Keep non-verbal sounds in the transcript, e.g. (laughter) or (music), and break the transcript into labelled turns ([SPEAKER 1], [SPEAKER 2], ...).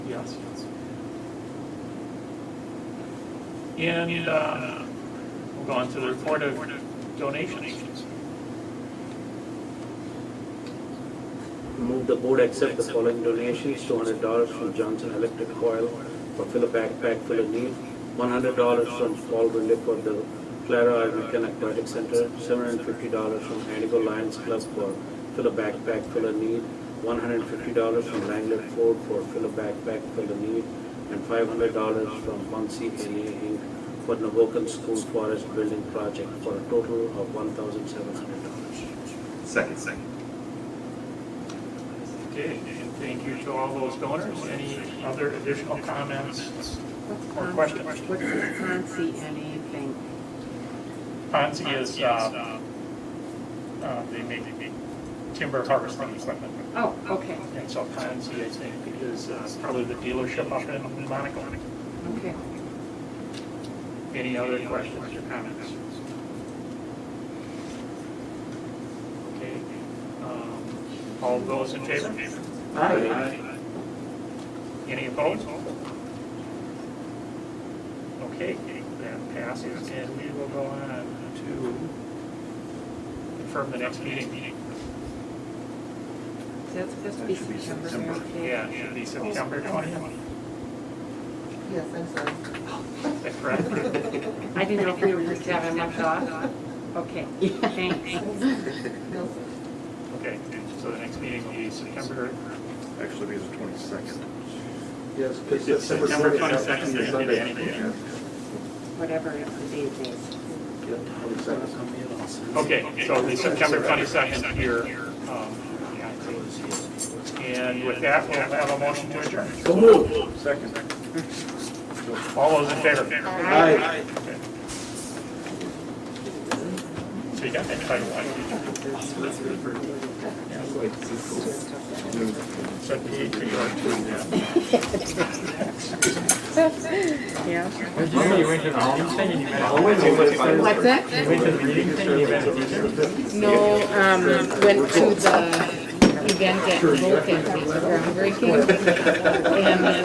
[SPEAKER 1] announcements.
[SPEAKER 2] And uh, we'll go on to the report of donations.
[SPEAKER 3] Move the board accept the following donations, two hundred dollars from Johnson Electric Coil for fill a backpack full of need, one hundred dollars from Paul Winley for the Clara American Aquatic Center, seven hundred fifty dollars from Antigo Lions Club for fill a backpack full of need, one hundred fifty dollars from Langlet Ford for fill a backpack full of need, and five hundred dollars from Muncie NA Inc. for Navokan School Forest Building Project for a total of one thousand seven hundred dollars.
[SPEAKER 1] Second, second.
[SPEAKER 2] Okay, and thank you to all those donors. Any other additional comments?
[SPEAKER 4] What's
[SPEAKER 2] Or
[SPEAKER 4] Con-
[SPEAKER 2] question.
[SPEAKER 4] What's the Concie and anything?
[SPEAKER 2] Ponzi is, uh, uh, they make timber harvesting equipment.
[SPEAKER 4] Oh, okay,
[SPEAKER 2] And so Ponzi, I think, is uh, probably the dealership up in Monaco.
[SPEAKER 4] okay.
[SPEAKER 2] Any other questions or comments? Okay, um, all those in favor? Aye. Any opposed? Okay, that passes, and we will go on to confirm the next meeting.
[SPEAKER 4] So that's supposed to be September, okay?
[SPEAKER 2] Yeah, it should be September 20th,
[SPEAKER 5] Yes, I'm sorry.
[SPEAKER 2] is that correct?
[SPEAKER 4] I didn't know if we were just having much off. (laughs) Okay, thanks.
[SPEAKER 5] No, sir.
[SPEAKER 2] Okay, so the next meeting will be September,
[SPEAKER 1] Actually, it'll be the twenty-second.
[SPEAKER 3] Yes,
[SPEAKER 2] It's September
[SPEAKER 3] September
[SPEAKER 2] 22nd,
[SPEAKER 3] is
[SPEAKER 2] Sunday.
[SPEAKER 4] Whatever the date is.
[SPEAKER 3] Yeah, 22nd.
[SPEAKER 2] okay, so it'll be September 22nd here. um, And with that, we'll have a motion to adjourn.
[SPEAKER 3] So moved.
[SPEAKER 1] Second.
[SPEAKER 2] All those in favor?
[SPEAKER 3] Aye.
[SPEAKER 2] So you got that title, like, so you can go to, uh,
[SPEAKER 4] Yeah.
[SPEAKER 6] You went to the meeting thing and you met all
[SPEAKER 4] What's that?
[SPEAKER 6] You went to the meeting thing and you met a teacher?
[SPEAKER 7] No, um, went
[SPEAKER 4] uh,
[SPEAKER 7] to the event at Vulcan, it was groundbreaking. And then